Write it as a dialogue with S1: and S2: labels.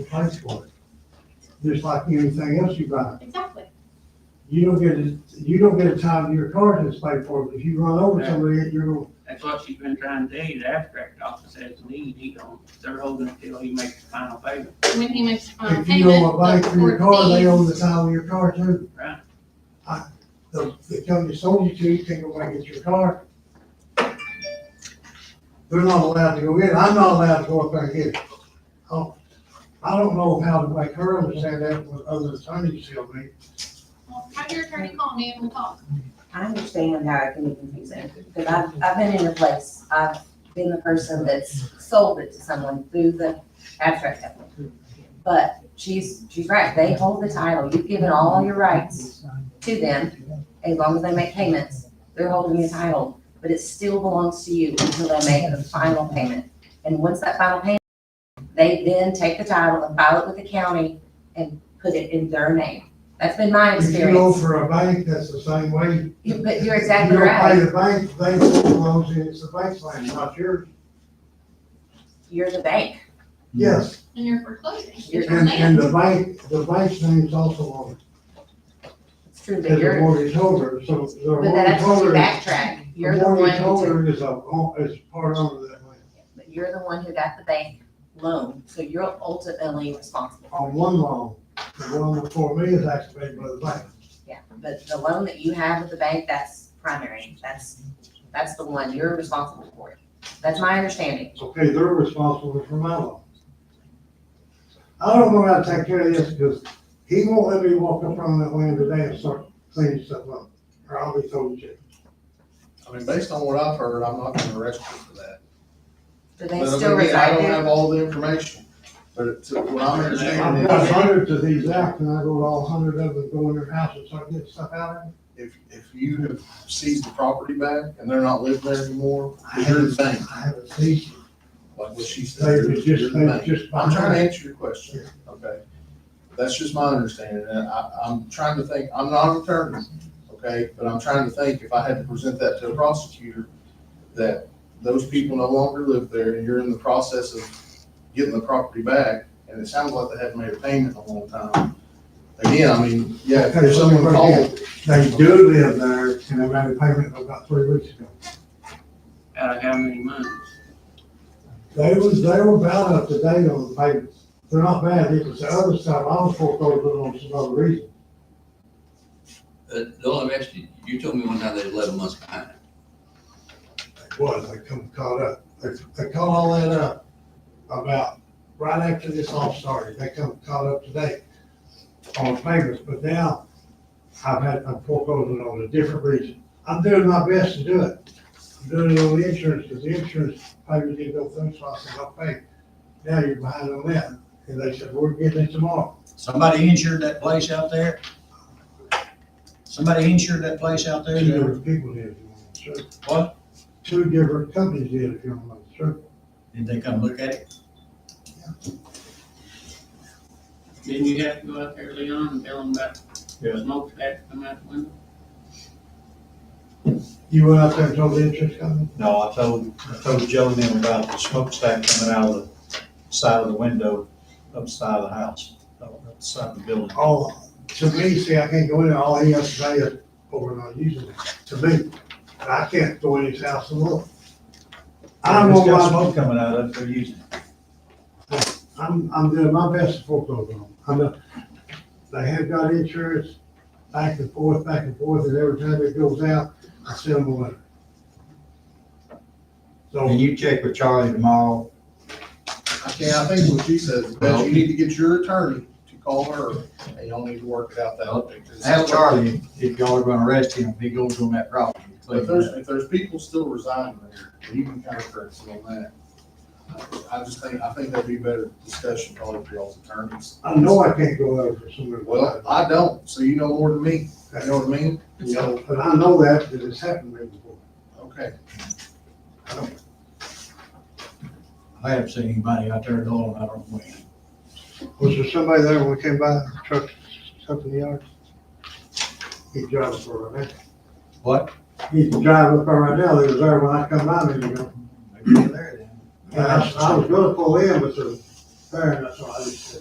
S1: you pay for it. Just like anything else you buy.
S2: Exactly.
S1: You don't get, a you don't get a time your car that's paid for, but if you run over
S3: Right.
S1: somebody, you're gonna,
S3: That's what she's been trying to do, the abstract office has a need, he don't, they're holding it till he makes the final payment,
S2: When he makes the final
S1: if you
S2: payment,
S1: owe a bank
S2: Uh, the
S1: for your
S2: court
S1: car, they own the
S2: fees,
S1: time of your car too.
S3: right?
S1: The, the company sold you to, you can't go back and get your car. They're not allowed to go in, I'm not allowed to go up there and get it. Oh, I don't know how to make her understand that with other attorneys tell me.
S2: Well, have your attorney call me and we'll talk.
S4: I understand how it can be confusing, because I've, I've been in the place, I've been the person that's sold it to someone through the abstract company. But she's, she's right, they hold the title, you've given all your rights to them, as long as they make payments, they're holding the title, but it still belongs to you until they make the final payment. And once that final payment, they then take the title and file it with the county and put it in their name. That's been my
S1: If you go
S4: experience,
S1: for a bank, that's the same way.
S4: You- but you're exactly
S1: You don't
S4: right.
S1: pay the bank, they foreclose, and it's the bank's land, not yours.
S4: you're the bank.
S1: Yes,
S2: And you're foreclosing. It's your
S1: and,
S2: land.
S1: and the bank, the bank's name's also on
S4: It's true,
S1: it,
S4: but
S1: as a
S4: you're,
S1: mortgage holder, so the
S4: but
S1: mortgage
S4: that's to
S1: holder.
S4: backtrack. You're the one
S1: mortgage
S4: who,
S1: holder is a, is part owner of that land,
S4: but you're the one who got the bank loan, so you're ultimately responsible.
S1: on one loan, the one before me is activated by the bank.
S4: Yeah, but the loan that you have with the bank, that's primary. That's, that's the one. You're responsible for it. That's my understanding.
S1: Okay, they're responsible for my loan. I don't know how to take care of this, because he won't let me walk up on that land today and start cleaning stuff up, or I'll be told you.
S5: I mean, based on what I've heard, I'm not gonna arrest you for that.
S4: Do they
S5: But I mean,
S4: still
S5: again, I
S4: reside
S5: don't
S4: there?
S5: have all the information, but it's, uh, what I'm
S1: I've
S5: understanding
S1: got
S5: is,
S1: hundreds of these out, and I go to all hundred of them, go in their houses, so I get stuff out of them.
S5: if, if you have seized the property back and they're not living there anymore, you're the bank,
S1: I haven't seen,
S5: like what she
S1: they
S5: said.
S1: were
S5: you're- you're
S1: just, they
S5: the
S1: were
S5: bank.
S1: just.
S5: I'm trying to answer your question, okay? That's just my understanding, and I, I'm trying to think, I'm not an attorney, okay? But I'm trying to think, if I had to present that to a prosecutor, that those people no longer live there, and you're in the process of getting the property back, and it sounds like they haven't made a payment in a long time. Again, I mean, yeah, if someone called,
S1: They do live there, and they made a payment about three weeks ago.
S3: Out of how many months?
S1: They was, they were about up to date on the payments. They're not bad, it was the other stuff, I was foreclosed on some other reason.
S6: Uh, Bill, I've asked you, you told me one time they're eleven months behind.
S1: It was, they come caught up, they, they caught all that up about right after this all started, they come caught up today on payments, but now I've had, I'm foreclosing on a different reason. I'm doing my best to do it. I'm doing it on the insurance, because the insurance payment didn't go through, so I said, I'll pay. Now you're behind on that, and they said, we're getting it tomorrow.
S7: Somebody insured that place out there? Somebody insured that place out there?
S1: Two different people did, if you want to, sure.
S7: What?
S1: Two different companies did, if you want to, sure.
S7: Did they come look at it?
S3: Didn't you have to go out there, Leon, and tell them about
S7: Yeah.
S3: smoke stacks coming out the window?
S1: You went out there and told the insurance company?
S7: No, I told, I told Joe and them about the smokestack coming out of the side of the window, up the side of the house, uh, up the side of the building.
S1: Oh, to me, see, I can't go in there, all he has to say is, oh, we're not using it, to me. And I can't go in his house and look. I don't know
S7: It's got
S1: why,
S7: Smoke coming out of it, they're using it.
S1: I'm, I'm doing my best to foreclose on them. I'm not, they have got insurance, back and forth, back and forth, and every time it goes out, I send them a letter.
S8: Can
S1: So,
S8: you check with Charlie tomorrow?
S5: I can't, I think what she said is, that you need to get your attorney to call her, and y'all need to work it out that way. 'cause
S8: Ask
S5: it sounds like-
S8: Charlie if y'all are gonna arrest him, if he goes on that property.
S5: If there's, if there's people still residing there, you can kind of correct them on that. I I just think, I think that'd be better discussion probably for y'all's attorneys.
S1: I know I can't go out for somebody.
S5: Well, I don't, so you know more than me, you know
S1: But
S5: what I mean? So,
S1: I know that, because it's happened to me before.
S5: okay,
S7: I haven't seen anybody out there going, I don't know.
S1: Was there somebody there when we came by, truck, up in the yard? He's driving for right now.
S7: What?
S1: He's driving for right now, he was there when I come by, maybe, you know.
S7: Maybe they're there then.
S1: And I, I was gonna pull in, but the, there, that's why I just said,